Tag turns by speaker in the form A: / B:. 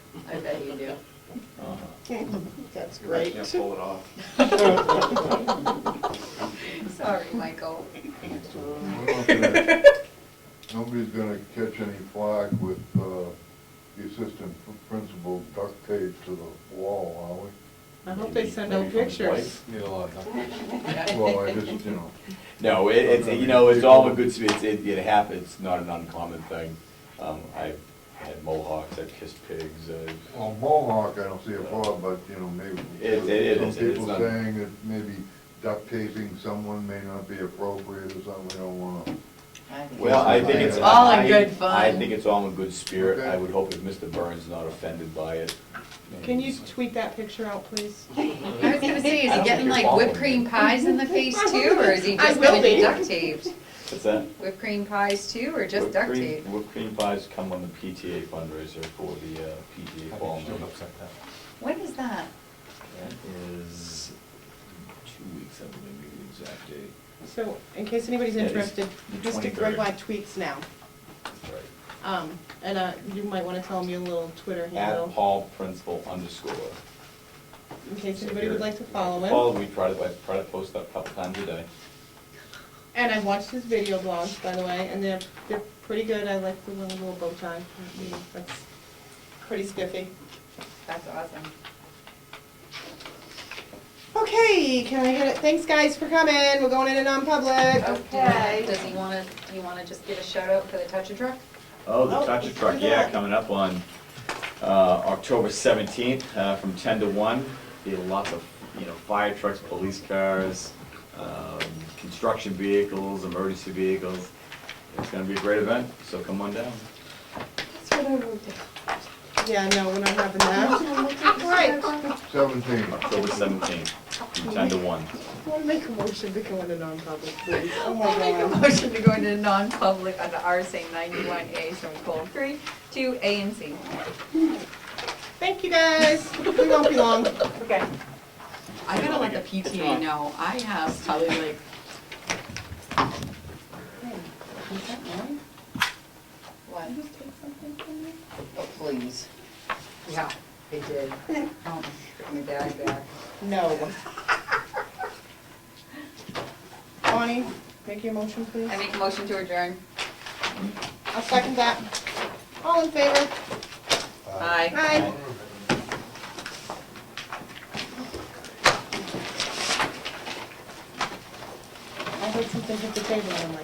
A: I bet you do.
B: That's
C: I
B: great.
C: can't pull it off.
A: Sorry, Michael.
D: Nobody's gonna catch any flack with, uh, the assistant principal duct taped to the wall,
B: I hope they send out
C: Maybe from
B: pictures.
D: are we? Yeah, Well, I just, you know,
E: No, it, it's, you know, it's all a good, sp- it's, it, it happens, it's not an uncommon thing. Um, I've had mohawks, I've kissed pigs, I've,
D: well, Mohawk, I don't see a problem, but, you know, maybe.
E: It- it is,
D: Some
E: it's
D: people
E: not-
D: saying that maybe duct taping someone may not be appropriate or something, we don't wanna.
E: well, I think it's.
D: It's all
A: in
E: I-
A: good
E: I
A: fun.
E: think it's all in good spirit, I
D: Okay.
E: would hope if Mr. Burns is not offended by it.
B: Can you tweet that picture out, please?
A: I was gonna say, is he
E: I
A: getting
E: don't think you're
A: like whipped cream
E: following me.
A: pies in the face too, or is he
B: I
A: just
B: will
A: gonna be
B: be.
A: duct taped?
E: What's that?
A: Whipped cream pies too, or just
E: Whipped
A: duct
E: cream-
A: tape?
E: Whipped cream pies come on the PTA fundraiser for the uh, PTA ball night.
A: When is that?
E: That is two weeks, I believe, maybe the exact date.
B: So, in case anybody's
E: Yeah, it's
B: interested,
E: the
B: Mr.
E: 23rd.
B: Grigline tweets now.
E: That's right.
B: Um, and, uh, you might wanna tell him your little Twitter
E: At
B: handle,
E: Paul Principal underscore.
B: in case anybody would like to follow
E: Paul,
B: him.
E: we try to, I try to post that a couple times a day.
B: And I've watched his video blogs, by the way, and they're, they're pretty good. I like the one with the little bow tie. That's pretty spiffy.
A: That's awesome.
B: Okay, can I get it? Thanks, guys, for coming. We're going in and non-public.
A: Okay. Does he wanna, do you wanna just give a shout out for the touch a truck?
E: Oh, the
B: Oh,
E: Touch a
B: let's
E: Truck,
B: do
E: yeah,
B: that.
E: coming up on uh, October 17th uh, from 10 to 1. Be lots of, you know, fire trucks, police cars, um, construction vehicles, emergency vehicles. It's gonna be a great event, so come on down.
A: That's what I wrote down.
B: Yeah, no, we're not having that. Right.
D: Seventeen,
E: October 17th from 10 to 1.
B: I wanna make a motion to go into non-public, please. Oh my
A: I'll make a
B: God.
A: motion to go into non-public uh, under RSA ninety-one A, so colon three, two, A and C.
B: Thank you, guys. We won't be long.
A: Okay.
F: I gotta let the PTA know, I have probably like,
A: What?
G: Oh, please.
A: Yeah, they did. Oh, my bag back.
B: No. Bonnie, make your motion, please.
A: I make a motion to adjourn.
B: I'll second that. All in favor?
A: Aye.
B: Aye. I heard something hit the table, and I'm like,